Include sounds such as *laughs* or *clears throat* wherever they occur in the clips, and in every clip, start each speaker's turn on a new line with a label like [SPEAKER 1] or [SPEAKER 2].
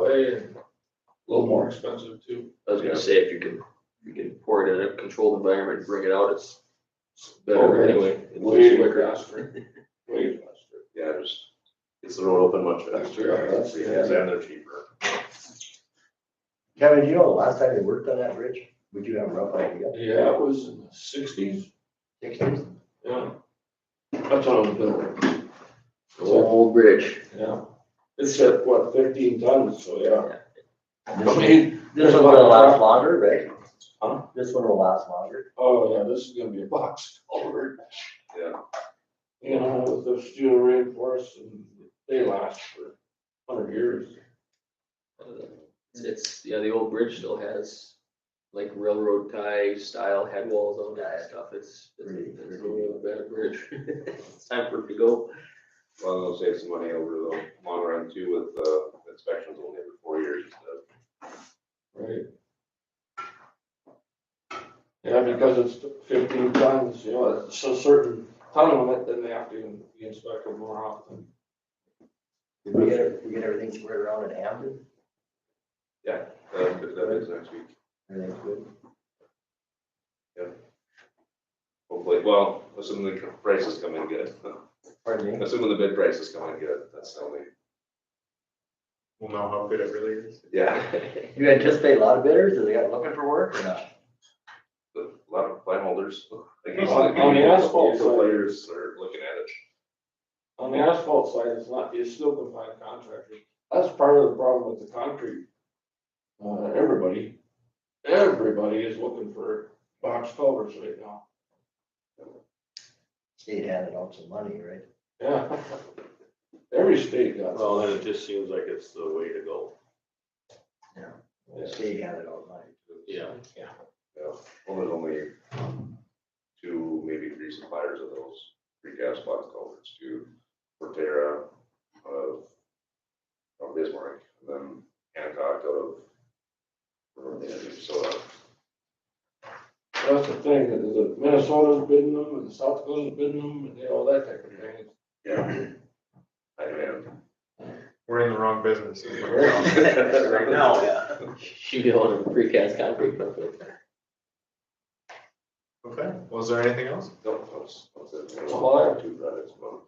[SPEAKER 1] way and a little more expensive too.
[SPEAKER 2] I was gonna say, if you can, you can pour it in a controlled environment, bring it out, it's it's better
[SPEAKER 1] Okay.
[SPEAKER 2] anyway. It's
[SPEAKER 1] Oh, Way
[SPEAKER 2] quicker.
[SPEAKER 1] faster. Way faster.
[SPEAKER 3] Yeah, just gets the road open much faster.
[SPEAKER 1] Yeah, that's- yeah.
[SPEAKER 3] And they're cheaper.
[SPEAKER 4] Kevin, you know, the last time they worked on that bridge, would you have a rough idea?
[SPEAKER 1] Yeah, it was in the sixties,
[SPEAKER 4] Sixties?
[SPEAKER 1] yeah. That's what I'm doing,
[SPEAKER 2] It's an old bridge.
[SPEAKER 1] yeah. It's at what, fifteen tons, so yeah.
[SPEAKER 4] This
[SPEAKER 1] I
[SPEAKER 4] one-
[SPEAKER 1] mean,
[SPEAKER 4] this one will last longer, right?
[SPEAKER 1] Huh?
[SPEAKER 4] This one will last longer.
[SPEAKER 1] oh yeah, this is gonna be a box culvert.
[SPEAKER 3] Yeah.
[SPEAKER 1] You know, with the steel reinforced and they last for hundred years.
[SPEAKER 2] It's- It's, yeah, the old bridge still has like railroad tie style head walls on that stuff. It's, it's it's a really bad bridge. *laughs* It's time for it to go.
[SPEAKER 3] Well, they'll save some money over the long run too with the inspections only every four years instead of
[SPEAKER 1] Right. Yeah, because it's fifteen tons, you know, it's a certain ton limit, then they have to be inspected more often.
[SPEAKER 4] Did we get, we get everything squared around in Hampton?
[SPEAKER 3] Uh, if that is next week,
[SPEAKER 4] Everything's good?
[SPEAKER 3] hopefully. Well, assuming the prices come in good. *laughs*
[SPEAKER 4] Pardon me?
[SPEAKER 3] Assuming the bid prices come in good, that's the only,
[SPEAKER 5] we'll know how good it really is.
[SPEAKER 3] yeah. *laughs*
[SPEAKER 4] You anticipate a lot of bidders? Are they out looking for work or
[SPEAKER 2] *laughs*
[SPEAKER 4] not?
[SPEAKER 3] A lot of plant holders. like,
[SPEAKER 1] On- on the asphalt
[SPEAKER 3] usual
[SPEAKER 1] side.
[SPEAKER 3] Players are looking at it.
[SPEAKER 1] On the asphalt side, it's not, you still can find contractors. That's part of the problem with the concrete. Uh, everybody, everybody is looking for box culverts right now.
[SPEAKER 4] State handed out some money, right?
[SPEAKER 1] Yeah. *laughs* Every state got.
[SPEAKER 6] Well, then it just seems like it's the way to go.
[SPEAKER 4] State handed out money.
[SPEAKER 6] Yeah.
[SPEAKER 3] Yeah, well, there's only um, two, maybe three suppliers of those precast box culverts, two, Portera, of, of Bismarck, and then Hancock out of, or the Minnesota.
[SPEAKER 1] That's the thing, is that Minnesota's bidding them and South Dakota's bidding them and you know, all that type of thing.
[SPEAKER 3] Yeah. I demand.
[SPEAKER 5] We're in the wrong business. is what it sounds like.
[SPEAKER 2] *laughs*
[SPEAKER 3] Right now,
[SPEAKER 2] Shoot it on a precast concrete company.
[SPEAKER 5] Okay, was there anything
[SPEAKER 3] *clears throat*
[SPEAKER 5] else?
[SPEAKER 3] No, that's, that's it.
[SPEAKER 1] Supplier.
[SPEAKER 3] Two products, well,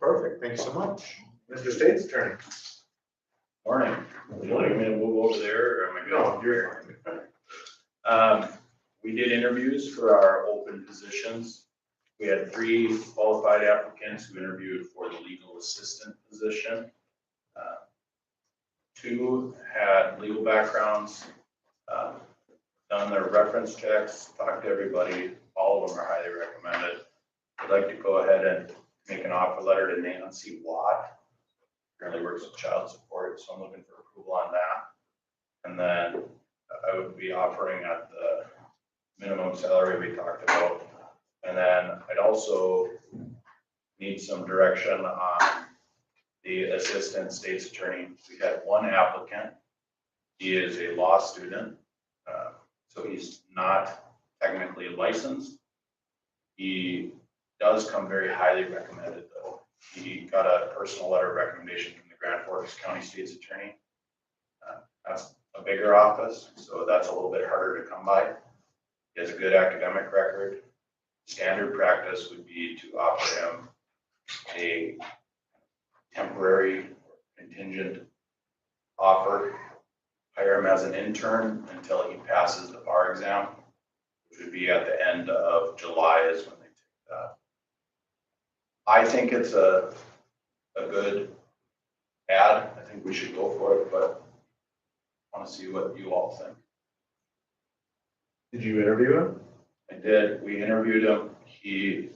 [SPEAKER 5] Perfect, thank you so much. Mr. State's turn.
[SPEAKER 7] Morning. You want me to move over there or am I good? You're fine. Um, we did interviews for our open positions. We had three qualified applicants who interviewed for the legal assistant position. Uh, Two had legal backgrounds, uh, done their reference checks, talked to everybody, all of them are highly recommended. I'd like to go ahead and make an offer letter to Nancy Watt currently works with child support, so I'm looking for approval on that. And then I would be offering at the minimum salary we talked about. And then I'd also need some direction on the assistant state's attorney. We had one applicant. He is a law student, uh, so he's not technically licensed. He does come very highly recommended though. He got a personal letter of recommendation from the Grand Forks County State's Attorney. Uh, That's a bigger office, so that's a little bit harder to come by. He has a good academic record. Standard practice would be to offer him a temporary contingent offer. Hire him as an intern until he passes the bar exam, which would be at the end of July is when they take that. I think it's a, a good ad. I think we should go for it, but I want to see what you all think.
[SPEAKER 5] Did you interview him?
[SPEAKER 7] I did, we interviewed him. He,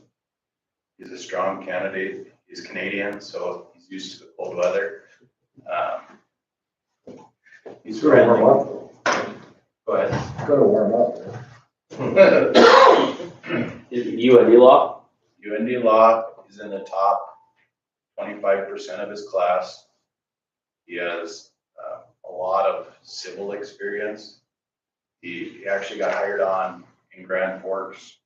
[SPEAKER 7] he's a strong candidate. He's Canadian, so he's used to the cold weather. Um, He's
[SPEAKER 4] It's gonna warm
[SPEAKER 7] friendly,
[SPEAKER 4] up. though.
[SPEAKER 7] but
[SPEAKER 4] It's gonna warm up. though.
[SPEAKER 7] *laughs*
[SPEAKER 2] You and Elon?
[SPEAKER 7] UND Law is in the top twenty-five percent of his class. He has uh, a lot of civil experience. He he actually got hired on in Grand Forks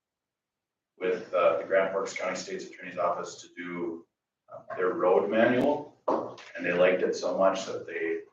[SPEAKER 7] with uh, the Grand Forks County State's Attorney's um, Office to do uh, their road manual. And they liked it so much that they